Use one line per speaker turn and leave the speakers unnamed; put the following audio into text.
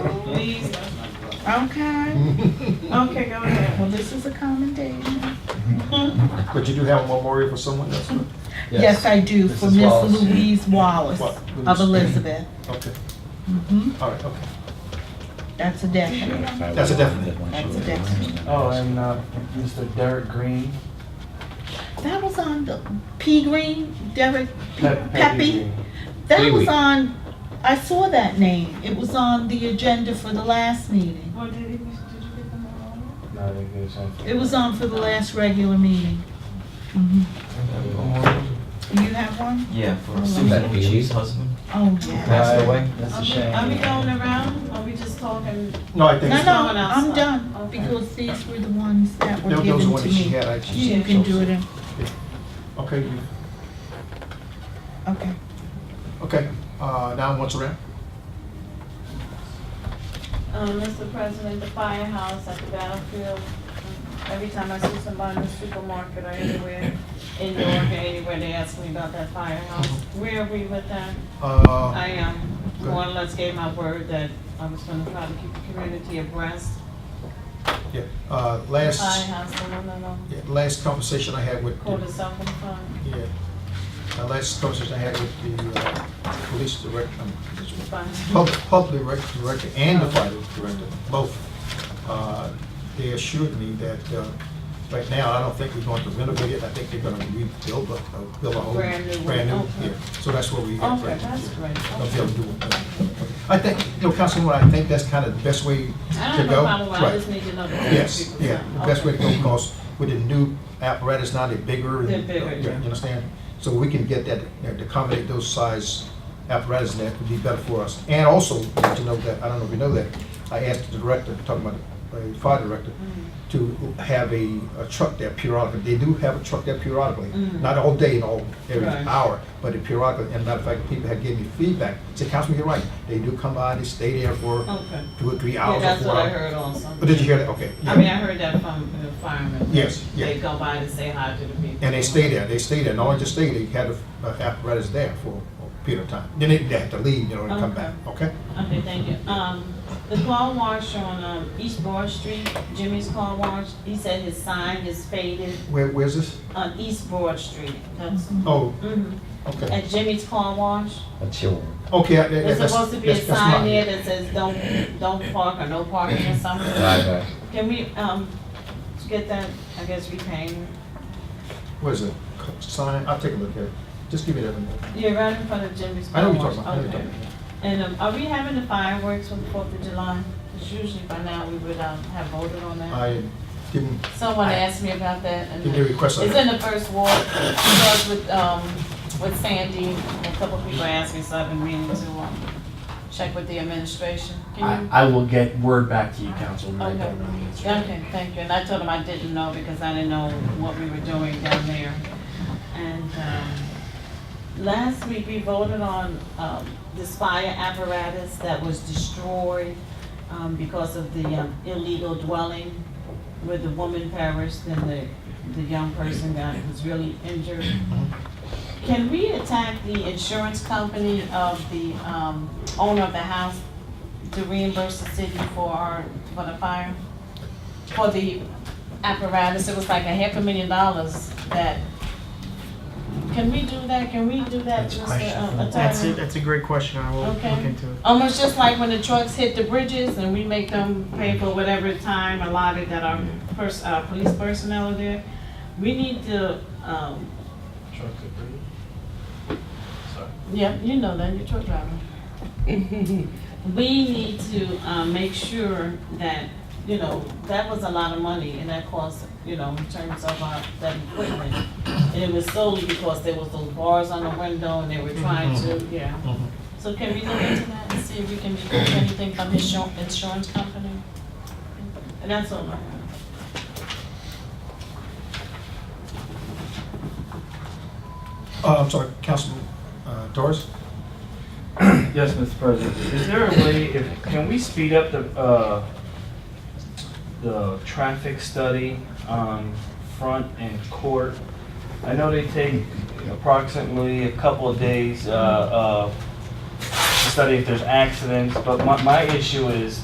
please? Okay, okay, go ahead. Well, this is a commendation.
But you do have a memorial for someone else?
Yes, I do, for
Mrs.
Miss
Wallace.
Louise Wallace
What?
of Elizabeth.
Okay,
Mhm.
all right, okay.
That's a definite.
That's a definite.
That's a definite.
Oh, and uh, Mr. Derek Green.
That was on the P Green, Derek P-
Pe-
Pepe. That was
Pee-wee.
on, I saw that name. It was on the agenda for the last meeting.
Well, did, it, did you get them all?
Green. No, they did something.
It was on for the last regular meeting. Mhm. You have one?
Yeah, for
That
Susan,
be
Chief's husband.
Oh,
Passed
yeah.
away. That's
Are
a
we-
shame.
Are we going around? Are we just talking?
No, I think
No,
so.
no, I'm done,
Okay.
because these were the ones that were
Those- those are
given
what
to
she
me.
had, I just-
You can do it in,
Okay, you-
okay.
okay, uh, now once around.
Um, Mr. President, the firehouse at the battlefield, every time I see somebody in the supermarket or anywhere, in New York or anywhere, they ask me about that firehouse. Where are we with that? I
Uh,
am, more or less gave my word that I was gonna try to keep the community abreast.
yeah, uh,
The
last,
Firehouse, the one on um,
yeah, last conversation I had with,
Quarter South Front,
yeah, the last conversation I had with the, uh, police director, um,
the fire.
Public, public rec- director and the fire director, both, uh, they assured me that, uh, right now, I don't think we're going to renovate it, I think they're gonna rebuild, a- uh, build a whole.
Brand new one,
brand new,
okay.
yeah. So that's what we have
Okay,
right now.
that's great.
Of
Okay.
them doing that. I think, you know, Councilwoman, I think that's kind of the best way to go.
I don't know how to, I
Right.
just need to know. the
Yes,
people.
yeah, the best way to
Okay.
go, because with the new apparatus now, they're bigger. and-
They're bigger,
Yeah,
yeah.
You understand? So we can get that, you know, to accommodate those size apparatus, and that would be better for us. And also, to know that, I don't know if you know that, I asked the director, talking about the uh, fire director,
Mm-hmm.
to have a a truck there periodically. They do have a truck there periodically,
Mm.
not all day and all, every
Right.
hour, but it periodically. And matter of fact, people had given me feedback, said, Councilman, you're right, they do come by, they stay there for
Okay.
two or three
Yeah,
hours or
that's
four
what I
hours.
heard also.
But Oh, did you hear that? Okay.
I
yeah.
mean, I heard that from the firemen.
Yes, yeah.
They go by to say hi to the people.
And they stay there, they stay there, not only just stay, they had a a apparatus there for a period of time. Then they they had to leave, you know, and come back, okay?
Okay, thank you. Um, the car wash on, um, East Broad Street, Jimmy's Car Wash, he said his sign is faded
Where, where's this?
on East Broad Street. That's,
Oh,
mhm.
okay.
At Jimmy's Car Wash,
That's your.
Okay. I- that-
there's
that's-
supposed to be a
that's- that's mine.
sign there that says don't, don't park or no parking or something.
Right,
Can we, um, get that, I guess, repainted?
Where's it? Co- Sign, I'll take a look at it. Just give me that one. more.
Yeah, right in front of Jimmy's
I
Car
know what
Wash.
you're talking about. I know what you're
Okay.
talking about.
And um, are we having the fireworks for the Fourth of July? Because usually by now we would um, have voted on that.
I didn't,
Someone asked me about that and
didn't request
it's in
that.
the first ward. It starts with, um, with Sandy and a couple of people asked me, so I've been meaning to um, check with the administration.
I,
Can you?
I will get word back to you, Councilman. I
Okay.
don't know the answer.
Okay, thank you. And I told them I didn't know because I didn't know what we were doing down there. And um, last week, we voted on um, this fire apparatus that was destroyed um, because of the um, illegal dwelling where the woman perished and the, the young person got, was really injured. Can we attack the insurance company of the um, owner of the house to reimburse the city for our, for the fire? For the apparatus, it was like a half a million dollars that, can we do that? Can we do that,
That's a
Mr.
question for-
uh, Attorney?
That's it, that's a great question, I will look
Okay.
into it.
Almost just like when the trucks hit the bridges and we make them pay for whatever time allotted that our pers- uh, police personnel are there. We need to, um,
Truck to breathe.
yeah, you know that, you're a truck driver. We need to, uh make sure that, you know, that was a lot of money and that cost, you know, in terms of our, that equipment. And it was solely because there was those bars on the window and they were trying to, yeah. So can we look into that and see if we can recoup anything from his insur- insurance company? And that's all I have.
Uh, I'm sorry, Councilman uh, Torres?
Yes, Mr. President. Is there a way, if, can we speed up the, uh, the traffic study on Front and Court? I know they take approximately a couple of days, uh, uh, to study if there's accidents, but my, my issue is